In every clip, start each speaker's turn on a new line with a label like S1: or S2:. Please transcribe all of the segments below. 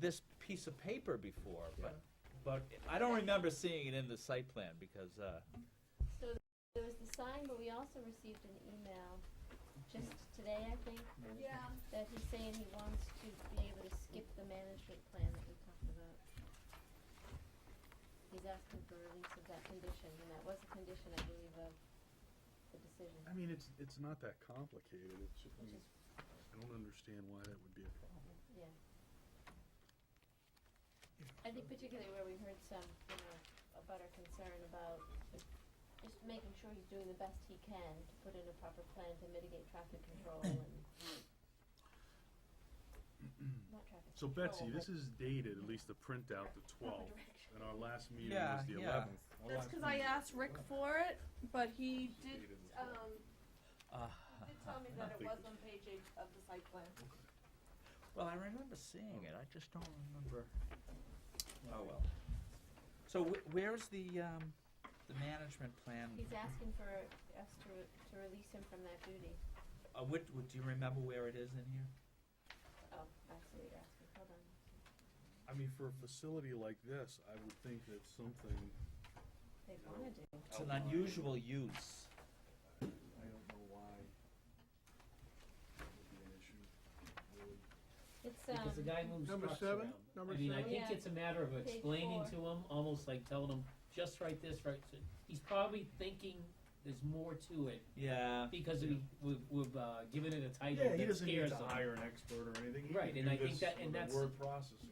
S1: this piece of paper before, but, but I don't remember seeing it in the site plan because, uh,
S2: So th- there was the sign, but we also received an email just today, I think,
S3: Yeah.
S2: that he's saying he wants to be able to skip the management plan that we talked about. He's asking for release of that condition, and that was a condition, I believe, of the decision.
S4: I mean, it's, it's not that complicated, it's, ju- I
S2: Which
S4: mean,
S2: is-
S4: I don't understand why that would be a problem.
S2: Yeah. I think particularly where we heard some, you know, about our concern about just making sure he's doing the best he can to put in a proper plan to mitigate traffic control and not traffic
S4: So
S2: control,
S4: Betsy, this
S2: but-
S4: is dated, at least the printout, the
S5: Oh,
S4: twelfth,
S3: direction.
S4: and our last meeting
S1: Yeah,
S4: was the
S1: yeah.
S4: eleventh.
S3: That's because I asked Rick for it, but he did, um,
S6: Ah.
S1: uh,
S3: he did tell me that it was on page eight of the site plan.
S1: well, I remember seeing it, I just don't remember. Oh, well. So wh- where's the, um, the management plan?
S2: He's asking for us to, re- to release him from that duty.
S1: Uh, what, what, do you remember where it is in here?
S2: Oh, I see what you're asking, hold on.
S4: I mean, for a facility like this, I would think that something,
S2: They wanna do.
S1: It's an unusual use.
S4: I don't know why that would be an issue, really.
S2: It's, um,
S5: Because the guy moves
S7: Number
S5: trucks
S7: seven?
S5: around.
S7: Number
S5: I mean, I
S2: seven?
S5: think
S2: Yeah.
S5: it's a matter of explaining to him, almost like telling him, just write this, right, so, he's probably thinking there's more to it,
S1: Yeah,
S5: because we, we've, we've, uh, given it a title
S4: Yeah, he
S5: that
S4: doesn't need
S5: scares
S4: to
S5: him.
S4: hire an expert or anything, he
S5: Right,
S4: can do
S5: and I think
S4: this
S5: that- and
S4: with a
S5: that's-
S4: word processing.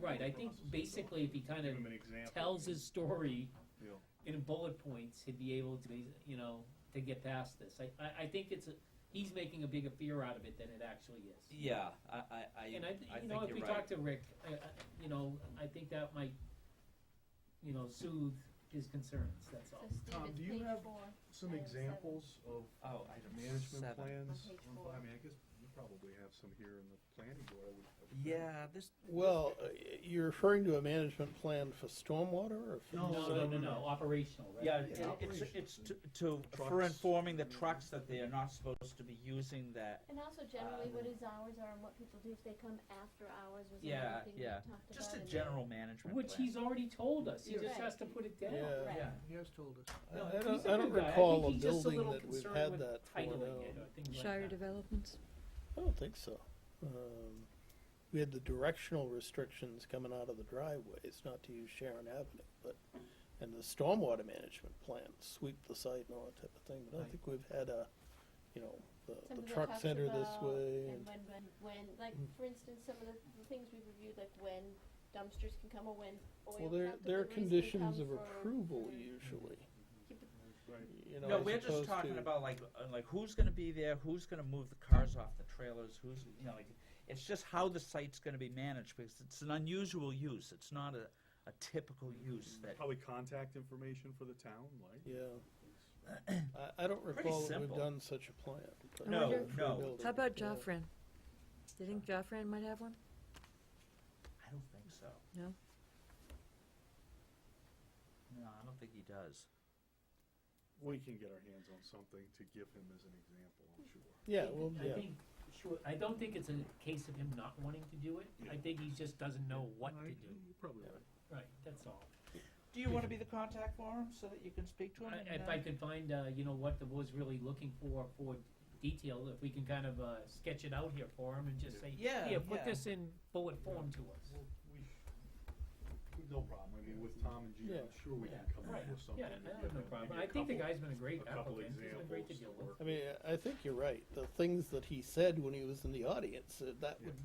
S5: Right, I think basically if he kinda
S4: Give him an example.
S5: Tells his story
S4: Yeah.
S5: in bullet points, he'd be able to, be, you know, to get past this, I, I, I think it's, a he's making a bigger fear out of it than it actually is.
S1: yeah, I, I, I,
S5: And I, th-
S1: I
S5: you know,
S1: think
S5: if we
S1: you're right.
S5: talk to Rick, I, I, you know, I think that might, you know, soothe his concerns, that's
S2: so
S5: all.
S2: Steve,
S4: Tom,
S2: it's
S4: do you
S2: page
S4: have
S2: four.
S4: Some
S2: Item seven.
S4: examples of
S1: Oh, item
S4: management
S1: seven.
S4: plans?
S2: On page
S4: Well,
S2: four.
S4: I mean, I guess you probably have some here in the planning board, I would. I would think.
S1: Yeah, this,
S7: Well, uh, you're referring to a management plan for stormwater or? for-
S5: No, no,
S4: No,
S5: no,
S4: no, no.
S5: no, operational, right?
S1: yeah,
S4: Yeah,
S1: it- it's,
S4: operations
S1: it's to,
S4: and
S1: to, for
S4: trucks.
S1: informing the trucks that they are not supposed to be using that.
S2: And also
S4: Uh,
S2: generally what
S1: Um,
S2: his hours are and what people do if they come after hours was
S1: Yeah,
S2: another thing we
S1: yeah,
S2: talked about.
S1: just a
S2: in there.
S1: general management
S5: Which
S1: plan.
S5: he's already told us, he
S2: Yeah.
S5: just
S2: Right.
S5: has to put it down.
S7: Yeah.
S2: Right.
S1: Yeah,
S7: He has told us.
S5: No,
S7: I- I
S5: he's
S7: don't,
S5: a
S7: I don't
S5: good guy. I
S7: recall a
S5: think he's just a
S7: building
S5: little
S7: that we've
S5: concerned
S7: had
S5: with
S7: that for now.
S5: Titling it or things like
S6: Shire
S5: that.
S6: developments?
S7: I don't think so. Um, We had the directional restrictions coming out of the driveways, not to use Sharon Avenue, but, and the stormwater management plan, sweep the site and all that type of thing, but I don't
S5: Right.
S7: think we've had a, you know, the,
S2: Some
S7: the
S2: of it
S7: truck
S2: talks
S7: center this
S2: about- And
S7: way. and-
S2: when, when, when, like,
S7: Mm.
S2: for instance, some of the the things we reviewed, like when dumpsters can come or when
S7: Well,
S2: oil
S7: there, there are
S2: counter deliveries can come
S7: conditions of
S2: for-
S7: approval
S2: for-
S7: usually,
S4: Right.
S5: Mm-hmm.
S7: you know,
S1: no,
S7: as
S1: we're just
S7: opposed
S1: talking
S7: to-
S1: about like, uh, like who's gonna be there, who's gonna move the cars off the trailers, who's, you know, like, it's just how the site's gonna be managed, because it's an unusual use, it's not a, a typical use that,
S4: Probably contact information for the town, like.
S7: Yeah. I, I don't recall that we've
S1: simple.
S7: done such a plan. but-
S6: I No,
S7: for a
S1: no.
S7: building,
S6: How about
S7: yeah.
S6: Joffrin? Do you think Joffrin might have one?
S1: I don't think so.
S6: No?
S1: No, I don't think he does.
S4: We can get our hands on something to give him as an example, I'm sure.
S7: Yeah,
S5: I
S7: well,
S5: think- I
S7: yeah.
S5: think, sure, I don't think it's a case of him not wanting to do it, I
S4: Yeah.
S5: think he just doesn't know what to
S4: Right,
S5: do,
S4: you're Probably right.
S5: right, that's all.
S1: Do you wanna be the contact for him, so that you can speak to him?
S5: I-
S1: and,
S5: If
S1: uh,
S5: I could find, uh, you know, what the board's really looking for, for detail, if we can kind of, uh, sketch it out here for him and just say,
S1: Yeah,
S5: here, put
S1: yeah.
S5: this in bullet form to us.
S4: Well, we, we- no problem, I mean, with Tom and Gina, I'm
S7: Yeah.
S4: sure we can come up with something.
S5: Yeah,
S4: to
S5: I
S4: give
S5: have no
S4: him.
S5: problem,
S4: Maybe
S5: I
S4: a
S5: think the
S4: couple-
S5: guy's been a great
S4: a couple
S5: applicant, he's been great to
S4: examples
S5: deal
S4: to
S5: with.
S4: work
S7: I mean, I think you're right. The things that he said when he was in the audience, uh, that would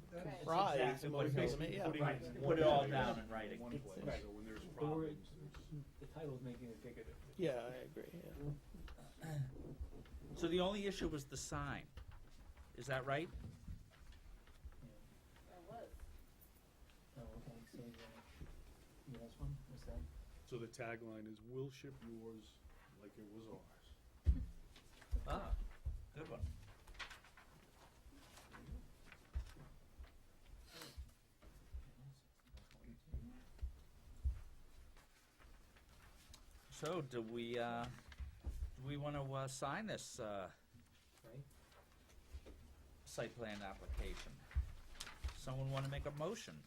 S2: Right.
S4: That's
S7: rise
S1: exactly what it
S7: most of them,
S4: basically
S7: yeah.
S4: putting
S5: Right.
S4: in
S5: Put
S4: one
S1: it all
S4: place-
S1: down in writing.
S4: One
S5: It's-
S4: place,
S5: right.
S4: so when there's
S5: Or-
S4: problems, there's.
S5: The title's making it bigger. than-
S7: Yeah, I agree, yeah.
S1: So the only issue was the sign, is that right?
S2: Or was.
S5: Oh, okay, so, uh, you guys one, what's that?
S4: So the tagline is, we'll ship yours like it was ours.
S1: Ah, good one. So do we, uh, do we wanna, uh, sign this, uh,
S5: Right?
S1: site plan application? Someone wanna make a motion?